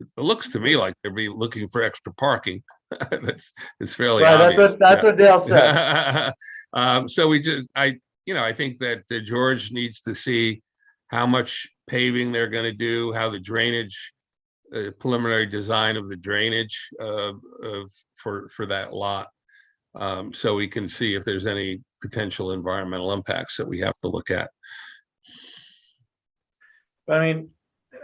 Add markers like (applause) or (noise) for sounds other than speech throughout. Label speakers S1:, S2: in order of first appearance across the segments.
S1: it looks to me like they'd be looking for extra parking. (laughs) That's, it's fairly
S2: Right, that's
S1: obvious.
S2: what, that's what Dale
S1: (laughs)
S2: said.
S1: Yeah. Um, so we just, I, you know, I think that uh, George needs to see how much paving they're gonna do, how the drainage, uh, preliminary design of the drainage, uh, of, for, for that lot. Um, so we can see if there's any potential environmental impacts that we have to look at.
S2: I mean,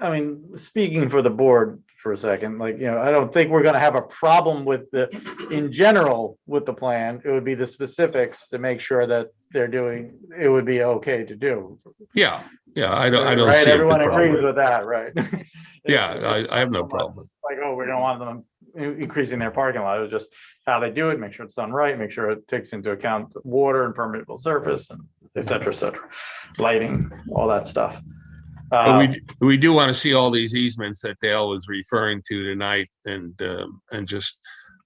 S2: I mean, speaking for the board for a second, like, you know, I don't think we're gonna have a problem with the, in general, with the plan. It would be the specifics to make sure that they're doing, it would be okay to do.
S1: Yeah, yeah, I don't, I don't
S2: Right,
S1: see. it the
S2: everyone agrees
S1: problem.
S2: with that, right?
S1: (laughs) Yeah, I, I have no
S2: It's not so much
S1: problem.
S2: Like, oh, we don't want them in- increasing their parking lot, it was just how they do it, make sure it's done right, make sure it takes into account water and permeable surface and et cetera, et cetera. Lighting, all that stuff.
S1: But
S2: Uh,
S1: we, we do want to see all these easements that Dale was referring to tonight and, um, and just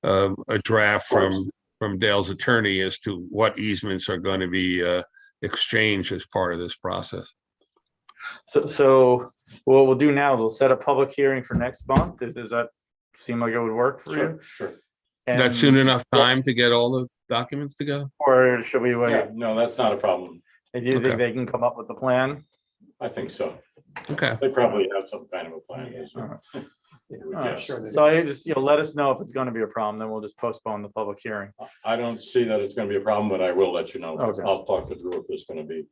S1: um, a draft from, from Dale's attorney as to what easements are going to be uh, exchanged as part of this process.
S2: so, so what we'll do now, is we'll set a public hearing for next month, Does- does that seem like it would work for you?
S3: Sure, sure.
S1: That
S2: And-
S1: soon enough time to get all the documents to go?
S2: Or should we
S3: Yeah,
S2: wait,
S3: no, that's not a problem.
S2: do you
S1: Okay.
S2: think they can come up with a plan?
S3: I think so.
S1: Okay,
S3: They probably have some kind of a plan. is
S2: All
S3: what
S2: right.
S3: we
S2: All right.
S3: guess.
S2: So you just, you'll let us know if it's gonna be a problem, then we'll just postpone the public hearing.
S3: I don't see that it's gonna be a problem, but I will let you know.
S2: Okay.
S3: I'll talk to Drew if there's gonna be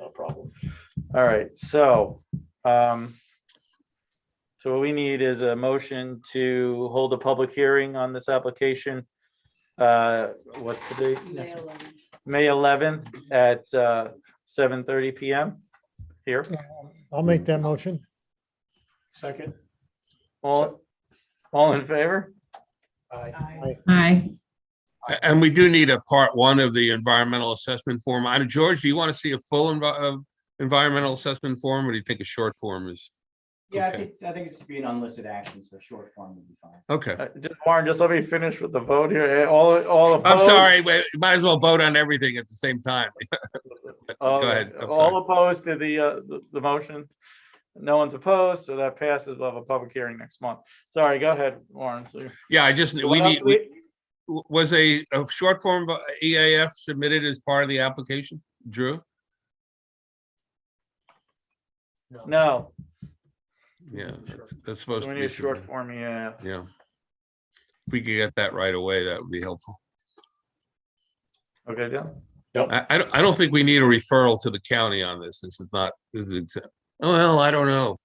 S3: a problem.
S2: All right, so, um, so what we need is a motion to hold a public hearing on this application. Uh, what's the date?
S4: May
S2: Next-
S4: 11th.
S2: May eleventh at, uh, seven thirty PM here.
S5: I'll make that motion.
S6: Second.
S2: All, all in favor?
S6: Aye.
S4: Aye.
S7: Aye.
S1: A- and we do need a part one of the environmental assessment form. I, George, do you want to see a full envi- uh, environmental assessment form or do you think a short form is?
S8: Yeah, I
S1: Okay.
S8: think, I think it's to be an unlisted action, so short form would be fine.
S1: Okay,
S2: Uh, just- Warren, just let me finish with the vote here. Eh, All, all
S1: I'm
S2: opposed?
S1: sorry, we might as well vote on everything at the same time.
S2: All-
S1: Go ahead, I'm
S2: All
S1: sorry.
S2: opposed to the, uh, the, the motion? No one's opposed, so that passes. We'll have a public hearing next month. Sorry, go ahead, Warren. So
S1: Yeah, I just, we
S2: What else
S1: need, we- w- was a, a short form of EAF submitted as part of the application, Drew?
S2: No,
S1: Yeah, that's- that's
S2: so
S1: supposed
S2: we
S1: to
S2: need a
S1: be,
S2: short
S1: submitted.
S2: form, yeah.
S1: yeah. If we could get that right away, that would be helpful.
S2: Okay, Dale?
S1: I, I don't, I don't think we need a referral to the county on this. This is not, this is, exa- well, I don't know.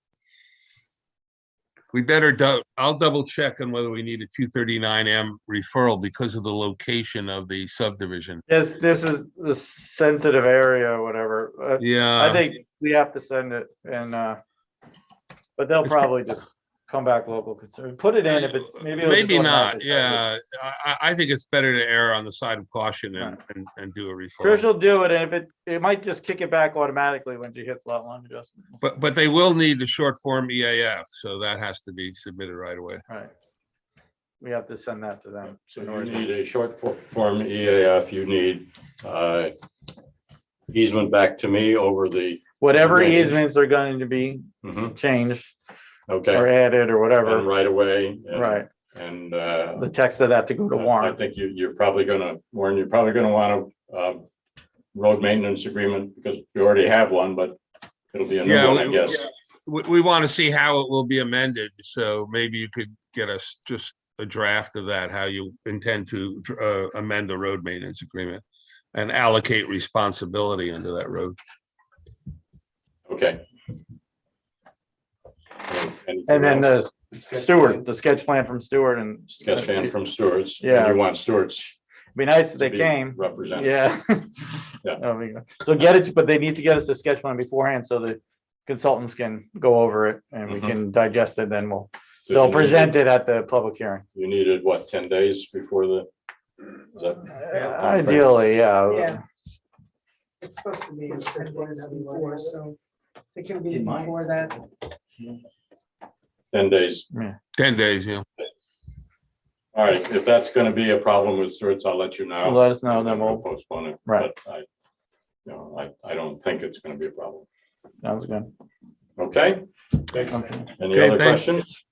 S1: We better, dou- I'll double check on whether we need a two thirty-nine M referral because of the location of the subdivision.
S2: Yes, this is the sensitive area or whatever. Uh, I
S1: Yeah,
S2: think we have to send it and, uh, but they'll
S1: It's pro-
S2: probably just come back local concern. Put it in if it's, maybe. it'll just
S1: maybe not,
S2: automatically send it.
S1: yeah. I, I, I think it's better to err on the side of caution and,
S2: Right.
S1: and, and do a
S2: Sure,
S1: referral.
S2: she'll do it, and if it, it might just kick it back automatically when she hits lot line adjustment.
S1: But, but they will need the short form EAF, so that has to be submitted right away.
S2: Right. We have to send that to them.
S3: So you need a short fo- form EAF, you need uh, easement back to me over the,
S2: Whatever
S3: Right.
S2: easements are going to be
S3: Mhm,
S2: changed Mm-hmm. or
S3: okay,
S2: added or
S3: and
S2: whatever,
S3: right away. and-
S2: right,
S3: And uh,
S2: the text of that to go to
S3: I- I
S2: warrant.
S3: think you, you're probably gonna, Warren, you're probably gonna want a road maintenance agreement because we already have one, but it'll be a new
S1: Yeah,
S3: one, I
S1: we-
S3: guess.
S1: We, we want to see how it will be amended, so maybe you could get us just a draft of that, how you intend to uh, amend the road maintenance agreement and allocate responsibility under that road.
S3: Okay.
S2: And then
S3: the
S2: the Stewart, the sketch plan from Stewart and.
S3: Sketch plan from Stewart's. and
S2: Yeah.
S3: You want Stewart's.
S2: Be nice if
S3: to
S2: they
S3: be
S2: came.
S3: Represented.
S2: Yeah. (laughs)
S3: Yeah.
S2: There we go. So get it, but they need to get us the sketch plan beforehand so the consultants can go over it and we
S3: Mhm.
S2: can digest it, then we'll,
S3: So you
S2: they'll
S3: needed-
S2: present it at the public hearing.
S3: You needed, what, ten days before the? is that-
S2: Ideally, yeah.
S4: Yeah. It's supposed to be ten days before, so it can be
S8: In mind.
S4: before that.
S3: Ten days.
S1: Ten days, you know.
S3: All right, if that's gonna be a problem with Stewart's, I'll let you know.
S2: Let us know, then
S3: And
S2: we'll,
S3: Postpone it.
S2: Right.
S3: but I, you know, I, I don't think it's gonna be a problem.
S2: sounds good.
S3: Okay?
S2: Okay.
S3: Any
S1: Okay,
S3: other
S1: thanks.
S3: questions?